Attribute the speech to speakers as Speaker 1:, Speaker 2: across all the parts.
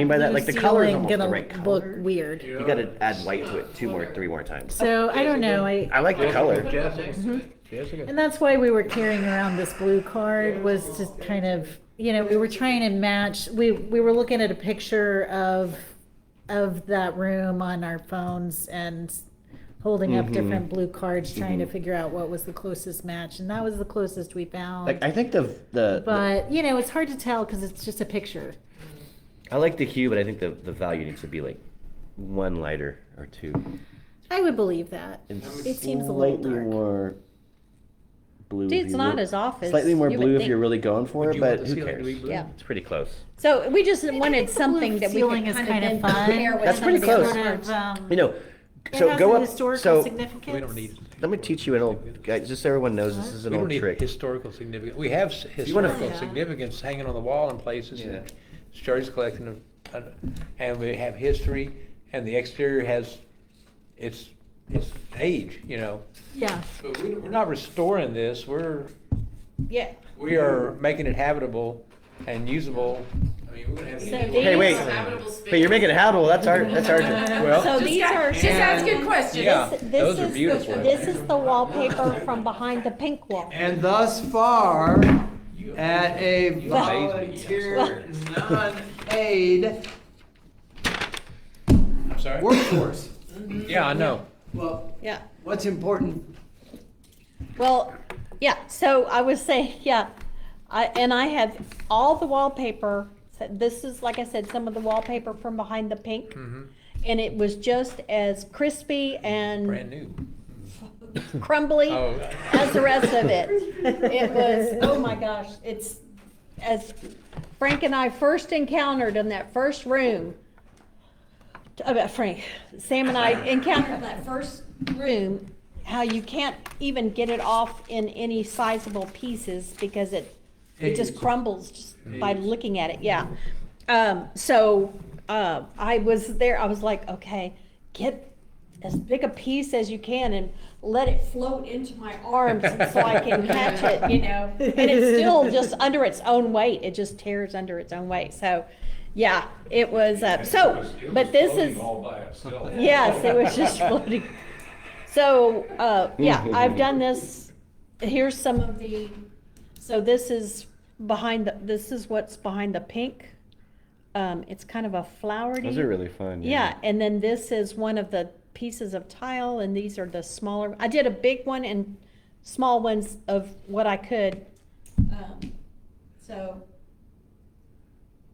Speaker 1: mean by that, like the color's almost the right
Speaker 2: gonna look
Speaker 1: color.
Speaker 2: weird.
Speaker 1: You gotta add white to it two more, three more times.
Speaker 2: So I don't know, I, mm-hmm.
Speaker 1: I like the color.
Speaker 3: Jessica, Jessica.
Speaker 2: and that's why we were carrying around this blue card was to kind of, you know, we were trying to match, we, we were looking at a picture of, of that room on our phones and holding
Speaker 1: Mm-hmm.
Speaker 2: up different blue cards, trying to figure out what was the closest match, and that was the closest we
Speaker 1: Like
Speaker 2: found.
Speaker 1: I think the the, the
Speaker 2: But, you know, it's hard to tell because it's just a picture.
Speaker 1: I like the hue, but I think the the value needs to be like one lighter or two.
Speaker 2: I would believe that. It seems a little
Speaker 1: slightly
Speaker 2: dark.
Speaker 1: more blue. if
Speaker 4: Dude, it's
Speaker 1: you
Speaker 4: not
Speaker 1: re-
Speaker 4: as off as
Speaker 1: Slightly more
Speaker 4: you would
Speaker 1: blue if
Speaker 4: think.
Speaker 1: you're really going for
Speaker 3: Would
Speaker 1: it,
Speaker 3: you want
Speaker 1: but
Speaker 3: the
Speaker 1: who
Speaker 3: ceiling to be
Speaker 1: cares?
Speaker 3: blue?
Speaker 4: Yeah.
Speaker 1: It's pretty close.
Speaker 4: So we just
Speaker 2: think
Speaker 4: wanted
Speaker 2: the
Speaker 4: something
Speaker 2: blue
Speaker 4: that we
Speaker 2: ceiling
Speaker 4: could
Speaker 2: is
Speaker 4: kind
Speaker 2: kinda
Speaker 4: of
Speaker 2: fun.
Speaker 4: compare with.
Speaker 1: That's pretty
Speaker 4: something
Speaker 1: close.
Speaker 4: sort of,
Speaker 2: um,
Speaker 1: You know,
Speaker 2: It
Speaker 1: so
Speaker 2: has
Speaker 1: go
Speaker 2: a
Speaker 1: up.
Speaker 2: Historical
Speaker 1: So
Speaker 2: significance.
Speaker 3: We don't need.
Speaker 1: let me teach you an old. Guys, just so everyone knows, this is
Speaker 3: We
Speaker 1: an
Speaker 3: don't
Speaker 1: old
Speaker 3: need
Speaker 1: trick.
Speaker 3: historical significance. We have s-
Speaker 1: wanna-
Speaker 3: historical
Speaker 2: Yeah.
Speaker 3: significance hanging on the wall in places
Speaker 1: Yeah.
Speaker 3: and storage collection of, and- and we have history and the exterior has its, its age, you know.
Speaker 2: Yeah,
Speaker 3: But we- we're not restoring this. We're,
Speaker 4: Yeah.
Speaker 3: we are making it habitable and usable. I mean, we're gonna have.
Speaker 4: So
Speaker 3: people-
Speaker 4: these-
Speaker 1: Hey, wait.
Speaker 5: Habitable
Speaker 1: But you're making it habitable. That's our. That's our.
Speaker 3: Well-
Speaker 4: So these are. um,
Speaker 5: Just asking questions.
Speaker 3: Yeah,
Speaker 4: This- this
Speaker 3: those are
Speaker 4: is the-
Speaker 3: beautiful.
Speaker 4: This is the wallpaper from behind the pink wall.
Speaker 6: And thus far, at a volunteer, non-paid
Speaker 3: I'm sorry?
Speaker 6: workforce.
Speaker 3: Yeah, I know.
Speaker 6: Well,
Speaker 4: Yeah.
Speaker 6: what's important,
Speaker 4: Well, yeah, so I was saying, yeah, I, and I have all the wallpaper, so this is, like I said, some of the wallpaper from behind the pink.
Speaker 1: Mm-hmm.
Speaker 4: And it was just as crispy
Speaker 3: Brand
Speaker 4: and
Speaker 3: new.
Speaker 4: crumbly
Speaker 3: Oh.
Speaker 4: as the rest of it. It was, oh my gosh, it's, as Frank and I first encountered in that first room, about Frank, Sam and I encountered in that first room, how you can't even get it off in any sizable pieces because it, it just
Speaker 6: Eggs.
Speaker 4: crumbles just by looking at it, yeah. Um, so, uh, I was there, I was like, okay, get as big a piece as you can and let it float into my arms so I can catch it, you know? And it's still just under its own weight, it just tears under its own weight, so, yeah, it was, uh, so, but this is. Yes, it was just floating. So, uh, yeah, I've done this, here's some of the, so this is behind the, this is what's behind the pink. Um, it's kind of a flowery.
Speaker 1: Those are really fun.
Speaker 4: Yeah, and then this is one of the pieces of tile, and these are the smaller, I did a big one and small ones of what I could. Um, So,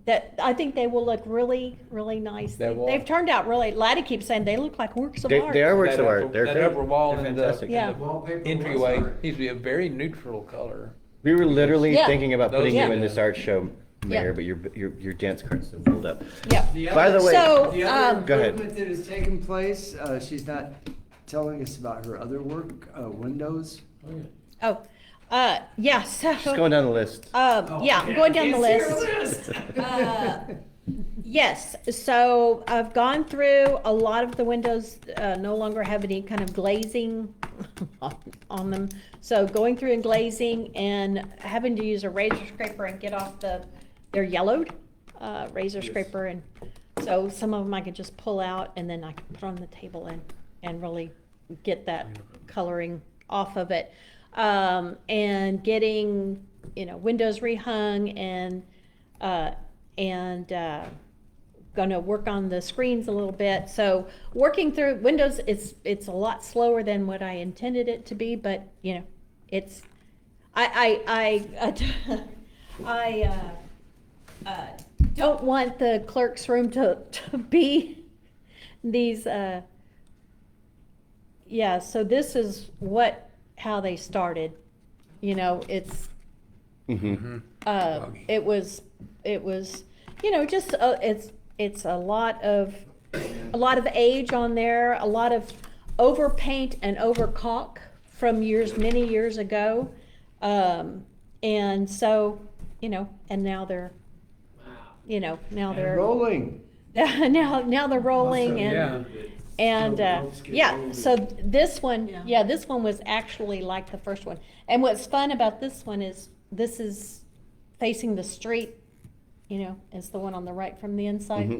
Speaker 4: that, I think they will look really, really nice.
Speaker 3: They will.
Speaker 4: They've turned out really, Laddie keeps saying they look like works of
Speaker 1: They,
Speaker 4: art.
Speaker 1: they are works
Speaker 3: That
Speaker 1: of
Speaker 3: upper-
Speaker 1: art. They're,
Speaker 3: that
Speaker 1: they're,
Speaker 3: upper wall
Speaker 1: they're
Speaker 3: in the-
Speaker 1: fantastic.
Speaker 4: Yeah.
Speaker 6: wallpaper. was
Speaker 3: Entryway
Speaker 6: art.
Speaker 3: needs to be a very neutral color.
Speaker 1: We were literally
Speaker 4: Yeah.
Speaker 1: thinking about
Speaker 3: Those-
Speaker 1: putting you
Speaker 4: Yeah.
Speaker 1: in this art show,
Speaker 4: Yeah.
Speaker 1: Mayor, but your your your dance card's still pulled up.
Speaker 4: Yeah.
Speaker 6: The
Speaker 1: By
Speaker 6: other-
Speaker 1: the way,
Speaker 4: So-
Speaker 6: The
Speaker 4: um,
Speaker 1: Go
Speaker 6: other
Speaker 1: ahead.
Speaker 6: improvement that has taken place, uh, she's not telling us about her other work, uh, windows.
Speaker 4: Oh, uh, yeah, so,
Speaker 1: just going down the list.
Speaker 4: um, yeah, I'm going down the
Speaker 6: Oh, It's
Speaker 4: list.
Speaker 6: your
Speaker 4: Uh, Yes, so I've gone through, a lot of the windows uh, no longer have any kind of glazing on them. So going through and glazing and having to use a razor scraper and get off the, they're yellowed, uh, razor scraper. And so some of them I could just pull out and then I can put on the table and, and really get that coloring off of it. Um, And getting, you know, windows rehung and, uh, and uh, gonna work on the screens a little bit. So working through Windows, it's, it's a lot slower than what I intended it to be, but, you know, it's, I, I, I, I uh, uh, don't want the clerk's room to, to be these, uh, yeah, so this is what, how they started. You know, it's,
Speaker 3: Mm-hmm.
Speaker 1: Mhm.
Speaker 4: uh,
Speaker 3: Foggy.
Speaker 4: it was, it was, you know, just, uh, it's, it's a lot of, a lot of age on there, a lot of overpaint and overcaulk from years, many years ago. Um, and so, you know, and now they're, you know, now
Speaker 6: And
Speaker 4: they're,
Speaker 6: Rolling.
Speaker 4: now, now they're rolling and.
Speaker 3: Yeah.
Speaker 4: And,
Speaker 6: So
Speaker 4: uh,
Speaker 6: let's get
Speaker 4: yeah,
Speaker 6: rolling.
Speaker 4: so this one,
Speaker 2: Yeah.
Speaker 4: yeah, this one was actually like the first one. And what's fun about this one is this is facing the street, you know, is the one on the right from the inside.
Speaker 1: Mhm.